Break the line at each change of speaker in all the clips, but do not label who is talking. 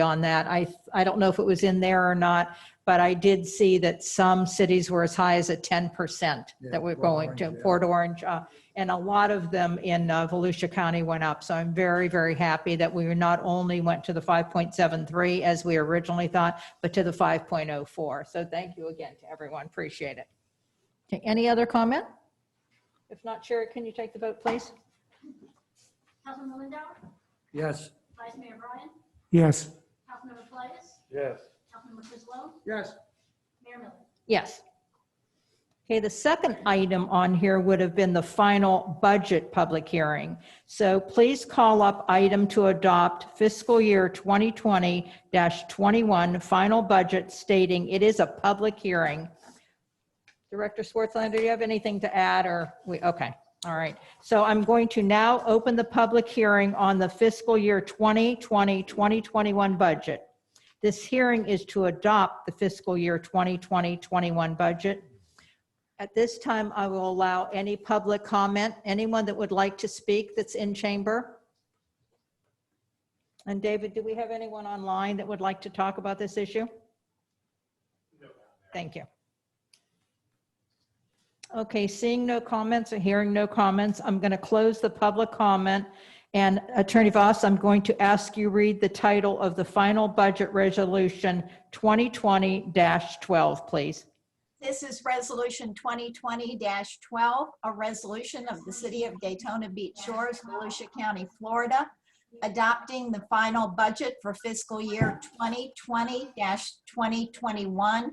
on that. I, I don't know if it was in there or not, but I did see that some cities were as high as a 10%
Yeah,
that we're
Port
going to,
Orange, yeah.
Port Orange. uh, And a lot of them in uh, Volusia County went up. So I'm very, very happy that we not only went to the 5.73 as we originally thought, but to the 5.04. So thank you again to everyone. Appreciate it. Okay, Any other comment? If not, Sherry, can you take the vote, please?
Councilman Lindauer,
Yes.
Vice Mayor Bryan,
Yes,
Councilmember Plius,
Yes.
Councilmember Frislow,
Yes.
Mayor Miller.
Yes. Okay, the second item on here would have been the final budget public hearing. So please call up item to adopt fiscal year 2020-21 final budget stating it is a public hearing. Director Swartzlander, do you have anything to add or we, okay, all right. So I'm going to now open the public hearing on the fiscal year 2020, 2021 budget. This hearing is to adopt the fiscal year 2020-21 budget. At this time, I will allow any public comment, anyone that would like to speak that's in chamber. And David, do we have anyone online that would like to talk about this issue? Thank you. Okay, seeing no comments or hearing no comments, I'm going to close the public comment. And Attorney Voss, I'm going to ask you read the title of the final budget resolution 2020-12, please.
This is Resolution 2020-12, a resolution of the City of Daytona Beach Shores, Volusia County, Florida, adopting the final budget for fiscal year 2020-2021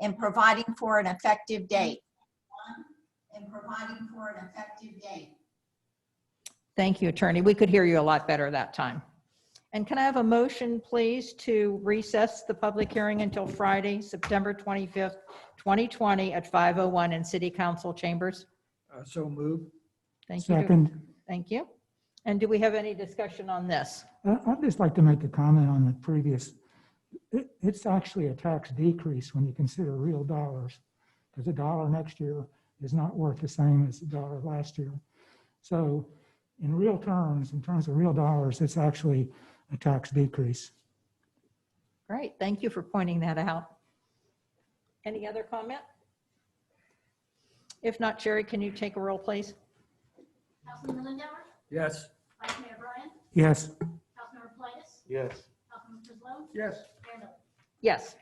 and providing for an effective date. And providing for an effective date.
Thank you, Attorney. We could hear you a lot better that time. And can I have a motion, please, to recess the public hearing until Friday, September 25th, 2020 at 5:01 in City Council chambers?
Uh, So moved.
Thank you.
second.
Thank you. And do we have any discussion on this?
I- Uh, I'd just like to make a comment on the previous. It- It's actually a tax decrease when you consider real dollars, because a dollar next year is not worth the same as a dollar last year. So in real terms, in terms of real dollars, it's actually a tax decrease.
Great, thank you for pointing that out. Any other comment? If not, Sherry, can you take a roll, please?
Councilman Lindauer,
Yes.
Vice Mayor Bryan,
Yes,
Councilmember Plius,
Yes.
Councilmember Frislow,
Yes.
Mayor Miller.
Yes.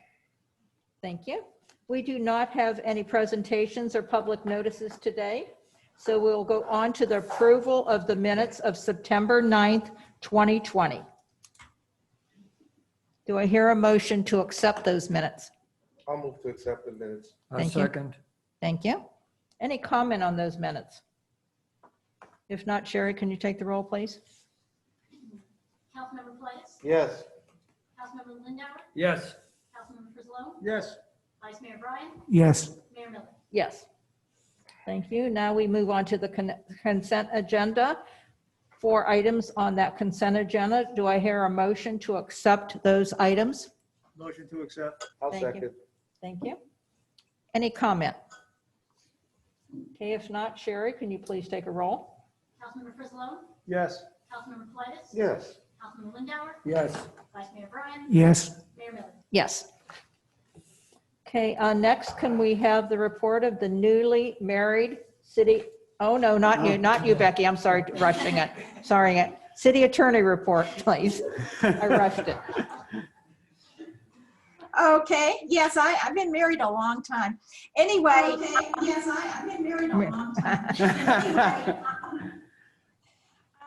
Thank you. We do not have any presentations or public notices today, so we'll go on to the approval of the minutes of September 9th, 2020. Do I hear a motion to accept those minutes?
I'll move to accept the minutes.
A
Thank you.
second.
Thank you. Any comment on those minutes? If not, Sherry, can you take the roll, please?
Councilmember Plius,
Yes,
Councilmember Lindauer,
Yes.
Councilmember Frislow,
Yes.
Vice Mayor Bryan,
yes,
Mayor Miller.
Yes. Thank you. Now we move on to the con- consent agenda. Four items on that consent agenda. Do I hear a motion to accept those items?
Motion to accept.
I'll
Thank you.
second.
Thank you. Any comment? Okay, if not, Sherry, can you please take a roll?
Councilmember Frislow,
Yes.
Councilmember Plius,
Yes,
Councilmember Lindauer,
Yes.
Vice Mayor Bryan,
yes.
Mayor Miller.
Yes. Okay, uh, next, can we have the report of the newly married city, oh, no, not you, not you, Becky, I'm sorry, rushing it, sorry, it. City attorney report, please. I rushed it.
Okay, yes, I, I've been married a long time. Anyway. yes, I, I've been married
a
long time.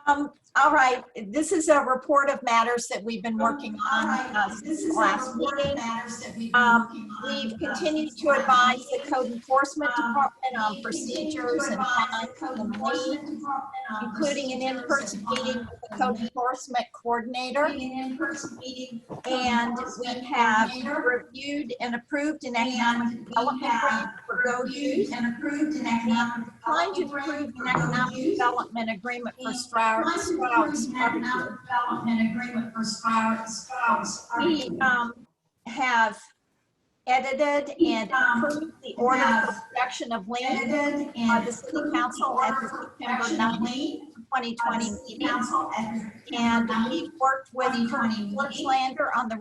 Um, all right, this is a report of matters that we've been working on uh, since the last meeting. Um, we've continued to advise the code enforcement department on procedures and fines and liens, including an in-person meeting with the code enforcement coordinator. And we have reviewed and approved an economic development grant for go use. And approved an economic. Trying to approve an economic development agreement for Stroud. Stroud.
Development Agreement for
We, um, have edited and approved the order for production of land by the city council at the September nineteenth, twenty twenty meeting. And we've worked with Kurt Fletchlander on the